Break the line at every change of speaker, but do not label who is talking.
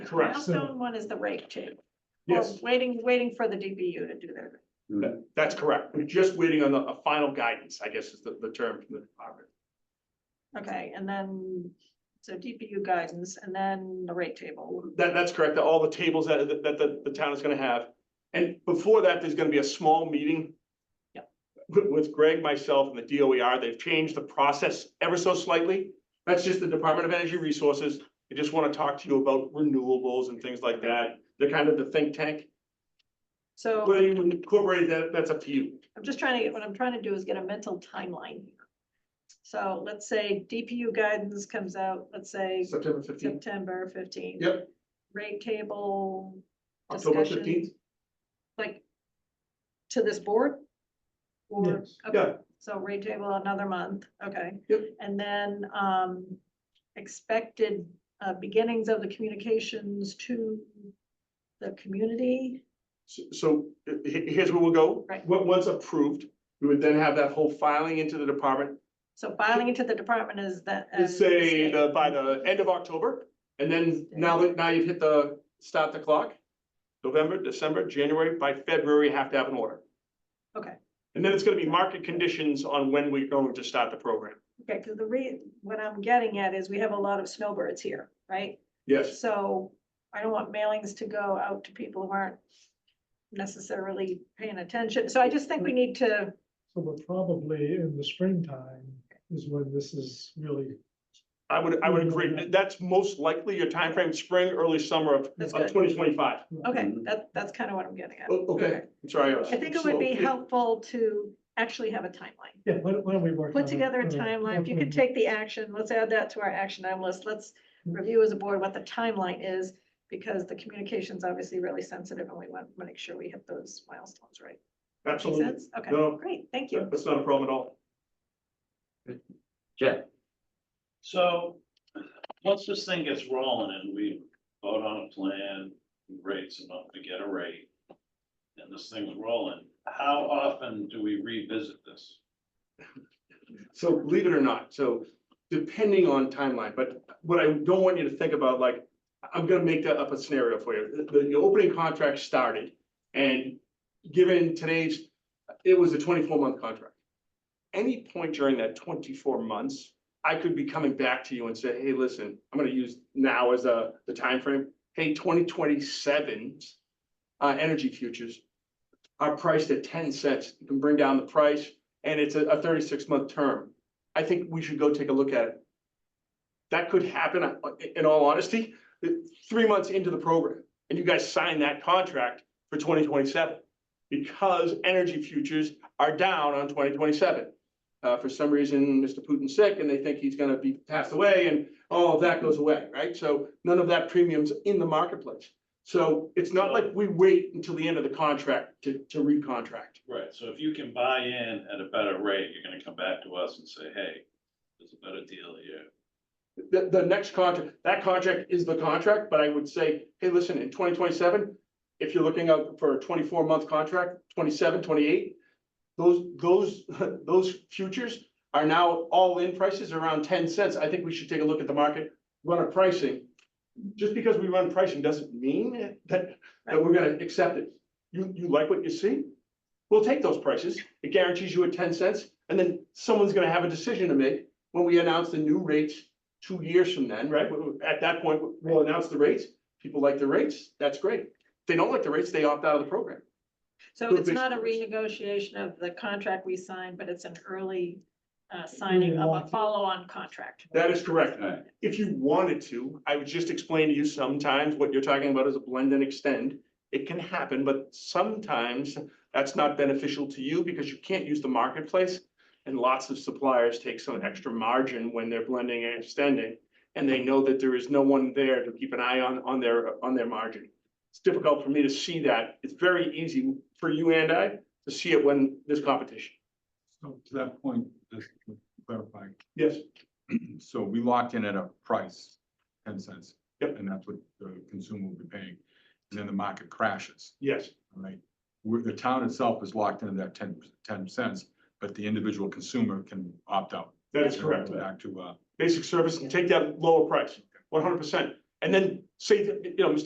Correct.
So-
Milestone one is the rate change. Or
Yes,
Waiting, waiting for the DBU to do their.
that- that's correct. We're just waiting on the, a final guidance, I guess is the, the term from the department.
Okay, and then, so DBU guidance and then the rate table.
That, that's correct, all the tables that, that, that the town is gonna have. And before that, there's gonna be a small meeting.
Yep.
With, with Greg, myself, and the DOER, they've changed the process ever so slightly. That's just the Department of Energy Resources, they just wanna talk to you about renewables and things like that. They're kind of the think tank,
So
whether you incorporate that, that's up to you.
I'm just trying to, get what I'm trying to do is get a mental timeline. here. So let's say DPU guidance comes out, let's say
September fifteenth,
September fifteenth.
Yep.
Rate table,
October
Discussion.
fifteenth,
like, to this board? Or,
Yes.
okay,
yeah,
so rate table another month, okay.
Yep.
And then, um, expected, uh, beginnings of the communications to the community.
So- So uh, he- here's where we'll go.
Right.
Wa- Once approved, we would then have that whole filing into the department.
So filing into the department is that.
Let's
as
say the,
stated.
by the end of October, and then now that, now you've hit the, start the clock. November, December, January, by February, you have to have an order.
Okay.
And then it's gonna be market conditions on when we're going to start the program.
Okay, because the re, what I'm getting at is we have a lot of snowbirds here, right?
Yes,
So I don't want mailings to go out to people who aren't necessarily paying attention. So I just think we need to,
So we're probably in the springtime is when this is really,
I would, I would agree. That's most likely your time frame, spring, early summer of,
That's
of
good.
twenty twenty-five.
okay,
Mm-hmm.
that, that's kind of what I'm getting at.
Okay, I'm sorry. was
I think it would be
slow.
helpful to actually have a timeline.
yeah, why don't why don't we work? on
Put
it?
together a
All right.
timeline. If you
Mm-hmm.
could take the action, let's add that to our action item list. Let's review as a board what the timeline is. Because the communication's obviously really sensitive and we want to make sure we hit those milestones, right? Makes
Absolutely.
sense? Okay,
No.
great, thank you.
That's not a problem at all.
So, once this thing gets rolling and we vote on a plan, rates enough to get a rate. And this thing's rolling, how often do we revisit this?
So believe it or not, so depending on timeline, but what I don't want you to think about, like, I'm gonna make that up a scenario for you. The, the opening contract started and given today's, it was a twenty-four month contract. Any point during that twenty-four months, I could be coming back to you and say, hey, listen, I'm gonna use now as a, the timeframe. Hey, 2027's uh, energy futures are priced at ten cents. You can bring down the price and it's a, a thirty-six month term. I think we should go take a look at it. That could happen, uh, i- in all honesty, th- three months into the program, and you guys sign that contract for twenty twenty-seven. Because energy futures are down on twenty twenty-seven. Uh, for some reason, Mr. Putin's sick and they think he's gonna be passed away and all of that goes away, right? So none of that premium's in the marketplace. So it's not like we wait until the end of the contract to, to recontract.
Right, so if you can buy in at a better rate, you're gonna come back to us and say, hey, there's a better deal here.
The, the next contract, that contract is the contract, but I would say, hey, listen, in twenty twenty-seven, if you're looking out for a twenty-four month contract, 27, 28, those, those, those futures are now all in prices around ten cents. I think we should take a look at the market, run a pricing. Just because we run pricing doesn't mean that, that we're gonna accept it. You, you like what you see? We'll take those prices. It guarantees you a ten cents, and then someone's gonna have a decision to make when we announce the new rates two years from then, right? we- we- At that point, we- we'll announce the rates. People like the rates, that's great. If they don't like the rates, they opt out of the program.
So
Good
it's not a
research.
renegotiation of the contract we signed, but it's an early uh, signing of a
want-
follow-on contract.
That is correct.
Right.
If you wanted to, I would just explain to you sometimes what you're talking about is a blend and extend. It can happen, but sometimes that's not beneficial to you because you can't use the marketplace. And lots of suppliers take some extra margin when they're blending and extending. And they know that there is no one there to keep an eye on, on their, on their margin. It's difficult for me to see that. It's very easy for you and I to see it when there's competition.
So to that point, just to clarify,
Yes,
so we locked in at a price, ten cents.
Yep.
And that's what the consumer will be paying, and then the market crashes,
yes,
all right? Where the town itself is locked into that 10 10 cents, but the individual consumer can opt out.
that is correct.
Back to, uh,
basic service and take that lower price, one hundred percent. And then say, that, you know, Mr.